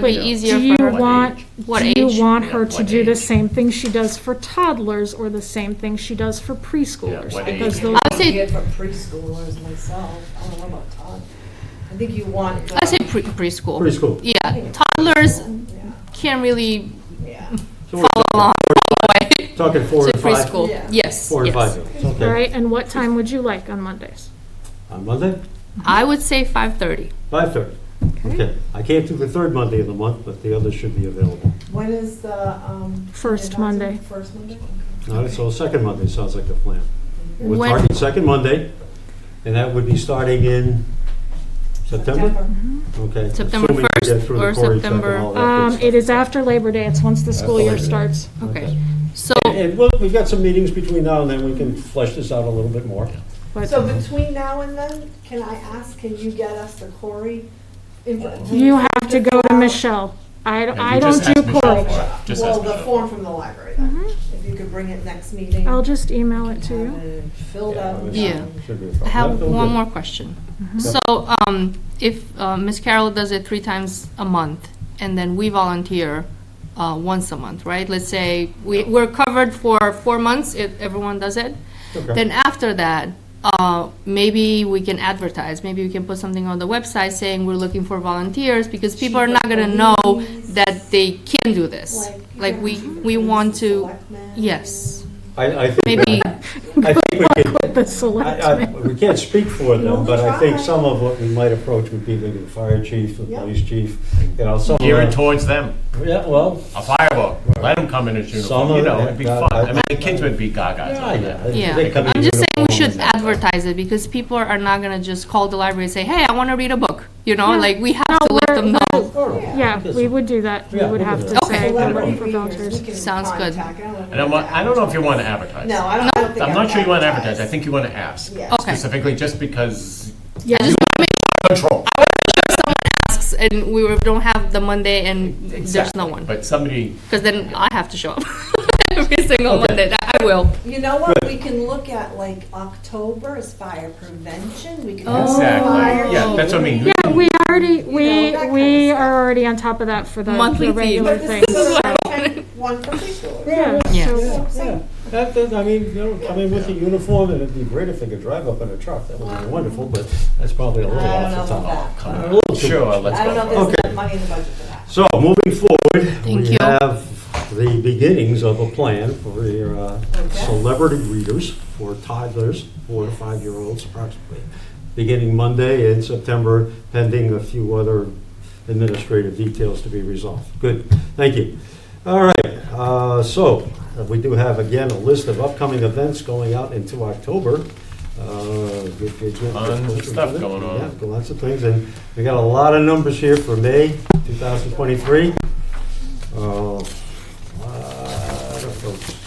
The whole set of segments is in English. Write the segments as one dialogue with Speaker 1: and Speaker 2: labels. Speaker 1: gonna be easier
Speaker 2: Do
Speaker 1: for
Speaker 2: you
Speaker 1: her.
Speaker 2: want,
Speaker 1: What
Speaker 2: do you
Speaker 1: age?
Speaker 2: want
Speaker 3: Yeah,
Speaker 2: her to
Speaker 3: what
Speaker 2: do the
Speaker 3: age?
Speaker 2: same thing she does for toddlers or the same thing she does for preschoolers?
Speaker 3: what
Speaker 2: Because
Speaker 3: age?
Speaker 2: those,
Speaker 1: I would say,
Speaker 4: Good for preschoolers myself, I don't know about Todd. I think you want. the-
Speaker 1: I say pre- preschool.
Speaker 5: Preschool.
Speaker 1: Yeah, toddlers can't really
Speaker 4: Yeah.
Speaker 5: So we're
Speaker 1: follow along all the way
Speaker 5: Talking four
Speaker 1: to
Speaker 5: and five,
Speaker 1: preschool.
Speaker 4: Yeah.
Speaker 1: Yes.
Speaker 5: four
Speaker 1: yes.
Speaker 5: and five. years.
Speaker 2: all
Speaker 5: Okay.
Speaker 2: right, and what time would you like on Mondays?
Speaker 5: On Monday,
Speaker 1: I would say five thirty.
Speaker 5: five thirty. Okay. I can't do the third Monday of the month, but the others should be available.
Speaker 4: When is the, um?
Speaker 2: First
Speaker 4: adopted-
Speaker 2: Monday.
Speaker 4: First Monday?
Speaker 5: All right, so second Monday sounds like the plan. We're
Speaker 1: When-
Speaker 5: targeting second Monday, and that would be starting in September? Okay.
Speaker 1: September
Speaker 5: assuming we get
Speaker 1: 1st
Speaker 5: through the
Speaker 1: or
Speaker 5: query check and
Speaker 1: September-
Speaker 5: all that good
Speaker 2: Um,
Speaker 5: stuff.
Speaker 2: it is after Labor Day, it's once the school year
Speaker 5: Labor Day.
Speaker 2: starts.
Speaker 1: Okay. So
Speaker 5: And well, we've got some meetings between now and then, we can flesh this out a little bit more.
Speaker 2: But
Speaker 4: So between now and then, can I ask, can you get us the Corey?
Speaker 2: you have to go to Michelle. I,
Speaker 3: you
Speaker 2: I don't
Speaker 3: just
Speaker 2: do
Speaker 3: ask Michelle
Speaker 2: Cory.
Speaker 3: for it. Just
Speaker 4: Well,
Speaker 3: ask
Speaker 4: the
Speaker 3: Michelle.
Speaker 4: form from the library then, if you could bring it next meeting.
Speaker 2: Mm-hmm. I'll just email it to
Speaker 4: Have
Speaker 2: you.
Speaker 4: it filled
Speaker 5: Yeah,
Speaker 4: out.
Speaker 1: Yeah.
Speaker 5: Should be a
Speaker 1: I
Speaker 5: problem.
Speaker 1: have
Speaker 5: That'll
Speaker 1: one
Speaker 5: do.
Speaker 1: more question. So um, if uh, Ms. Carroll does it three times a month, and then we volunteer uh, once a month, right? Let's say we, we're covered for four months if everyone does it.
Speaker 5: Okay.
Speaker 1: Then after that, uh, maybe we can advertise, maybe we can put something on the website saying we're looking for volunteers, because people are not gonna know that they can do this. Like, we, we want to,
Speaker 4: Selectmen.
Speaker 1: yes,
Speaker 5: I, I think.
Speaker 1: maybe,
Speaker 5: I think we can,
Speaker 2: The
Speaker 5: I, I,
Speaker 2: selectmen.
Speaker 5: we can't speak for them,
Speaker 4: No,
Speaker 5: but I think
Speaker 4: try.
Speaker 5: some of what we might approach would be maybe the fire chief, the
Speaker 4: Yeah.
Speaker 5: police chief, you know, some of
Speaker 3: Geared
Speaker 5: the.
Speaker 3: towards them,
Speaker 5: Yeah, well,
Speaker 3: a fireball, let them come in his
Speaker 5: Some
Speaker 3: uniform,
Speaker 5: of
Speaker 3: you know,
Speaker 5: it,
Speaker 3: it'd be
Speaker 5: uh,
Speaker 3: fun.
Speaker 5: I-
Speaker 3: I mean, the kids would be gaga.
Speaker 5: yeah, yeah. they-
Speaker 1: yeah.
Speaker 5: they come in
Speaker 1: I'm just saying we should
Speaker 5: uniform.
Speaker 1: advertise it, because people are not gonna just call the library and say, hey, I wanna read a book, you know,
Speaker 2: Yeah.
Speaker 1: like, we
Speaker 2: No,
Speaker 1: have to let
Speaker 2: we're-
Speaker 1: them know.
Speaker 5: Sure.
Speaker 2: Yeah, we would do that. We
Speaker 5: Yeah,
Speaker 2: would
Speaker 5: we'll
Speaker 2: have
Speaker 5: do
Speaker 2: to
Speaker 5: that.
Speaker 2: say
Speaker 4: So
Speaker 2: we're
Speaker 4: that
Speaker 2: looking
Speaker 4: would
Speaker 2: for
Speaker 4: be yours.
Speaker 2: volunteers.
Speaker 4: We can
Speaker 1: Sounds good.
Speaker 4: contact them and
Speaker 3: I don't want, I don't know if you want to advertise.
Speaker 4: No, I don't, I don't think.
Speaker 3: I'm
Speaker 4: I
Speaker 3: not sure you want to advertise, I
Speaker 4: advertised.
Speaker 3: think you want to ask.
Speaker 4: Yeah.
Speaker 1: Okay.
Speaker 3: Specifically, just because
Speaker 2: Yeah,
Speaker 1: I just wanna make
Speaker 3: control.
Speaker 1: sure, and we were- don't have the Monday and there's no
Speaker 3: Exactly.
Speaker 1: one,
Speaker 3: But somebody,
Speaker 1: because then I have to show up every single Monday, I will.
Speaker 4: You know what, we can look at like October as fire prevention, we can. have
Speaker 1: Oh.
Speaker 3: exactly, yeah,
Speaker 1: Oh.
Speaker 3: that's what I mean.
Speaker 2: Yeah, we already,
Speaker 4: know,
Speaker 2: we,
Speaker 4: that kind
Speaker 2: we
Speaker 4: of stuff.
Speaker 2: are already on top of that for the
Speaker 1: Monthly
Speaker 2: the
Speaker 1: fee.
Speaker 2: regular
Speaker 4: But
Speaker 2: things.
Speaker 4: this is a second one for preschoolers.
Speaker 5: Yeah,
Speaker 1: Yeah.
Speaker 5: yeah,
Speaker 1: so-
Speaker 5: yeah, yeah. That, that, I mean, you know, I mean, with the uniform, and it'd be great if they could drive up in a truck, that would be wonderful, but that's probably a little
Speaker 4: I don't
Speaker 5: off the
Speaker 4: know about
Speaker 5: top.
Speaker 4: that.
Speaker 5: A little too
Speaker 3: Sure, let's
Speaker 4: I don't know
Speaker 3: go.
Speaker 4: if
Speaker 3: for it.
Speaker 4: there's
Speaker 5: Okay.
Speaker 4: enough money in the budget for that.
Speaker 5: So, moving forward,
Speaker 1: Thank
Speaker 5: we
Speaker 1: you.
Speaker 5: have the beginnings of a plan for your uh, celebrity readers, for toddlers, four to five-year-olds approximately, beginning Monday in September, pending a few other administrative details to be resolved. Good, thank you. All right, uh, so, uh, we do have, again, a list of upcoming events going out into October. Uh, good, good, good.
Speaker 3: Tons of stuff going on.
Speaker 5: Yeah, got lots of things, and we got a lot of numbers here for May 2023. Oh, lot of folks.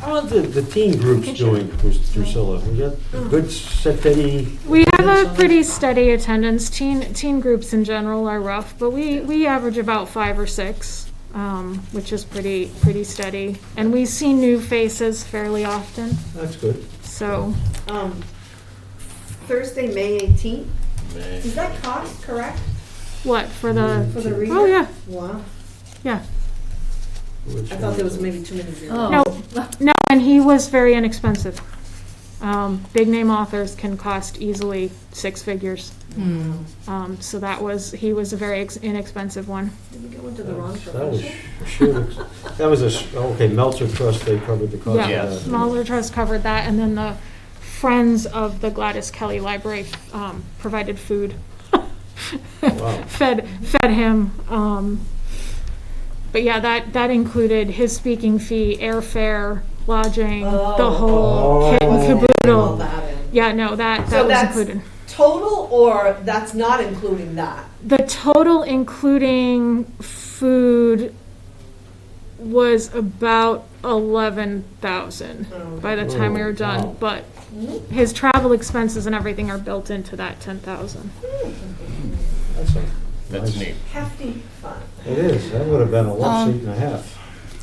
Speaker 5: How are the, the teen groups doing, Drus- Drusilla? We got
Speaker 4: Mm.
Speaker 5: a good steady?
Speaker 2: We have a pretty steady attendance. Teen, teen groups in general are rough, but we, we average about five or six, um, which is pretty, pretty steady. And we see new faces fairly often,
Speaker 5: That's good.
Speaker 2: so.
Speaker 4: Um, Thursday, May eighteenth, is that cost correct
Speaker 2: What, for the,
Speaker 4: Uh, for the reader?
Speaker 2: oh, yeah,
Speaker 4: Wow,
Speaker 2: yeah.
Speaker 5: Which
Speaker 4: I thought there was
Speaker 5: one?
Speaker 4: maybe too many zeros.
Speaker 1: Oh.
Speaker 2: No, no, and he was very inexpensive. Um, big-name authors can cost easily six figures. Um, so that was, he was a very ex- inexpensive one.
Speaker 4: Did we go into the wrong
Speaker 5: That was,
Speaker 4: profession?
Speaker 5: sure, that was a, s- okay, Meltzer Trust, they covered the cost
Speaker 2: Yeah,
Speaker 5: of that.
Speaker 2: Smaller Trust covered that, and then the Friends of the Gladys Kelly Library um, provided food,
Speaker 5: Wow.
Speaker 2: fed, fed him. um, But yeah, that, that included his speaking fee, airfare, lodging, the
Speaker 4: Oh.
Speaker 2: whole kit
Speaker 5: Oh.
Speaker 2: and
Speaker 4: All
Speaker 2: caboodle.
Speaker 4: that in.
Speaker 2: Yeah, no, that, that
Speaker 4: So
Speaker 2: was
Speaker 4: that's
Speaker 2: included.
Speaker 4: Total or that's not including that?
Speaker 2: The total including food was about eleven thousand by the time we were
Speaker 5: Wow.
Speaker 2: done, but his travel expenses and everything are built into that ten thousand.
Speaker 5: That's a-
Speaker 3: That's neat.
Speaker 4: Hefty fun.
Speaker 5: It is, that would have been a love seat and a half.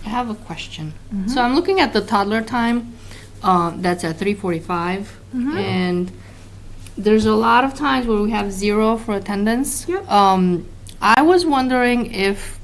Speaker 1: I have a question.
Speaker 2: Mm-hmm.
Speaker 1: So I'm looking at the toddler time, uh, that's at 3:45,
Speaker 2: Mm-hmm.
Speaker 1: and there's a lot of times where we have zero for attendance.
Speaker 2: Yep.
Speaker 1: Um, I was wondering if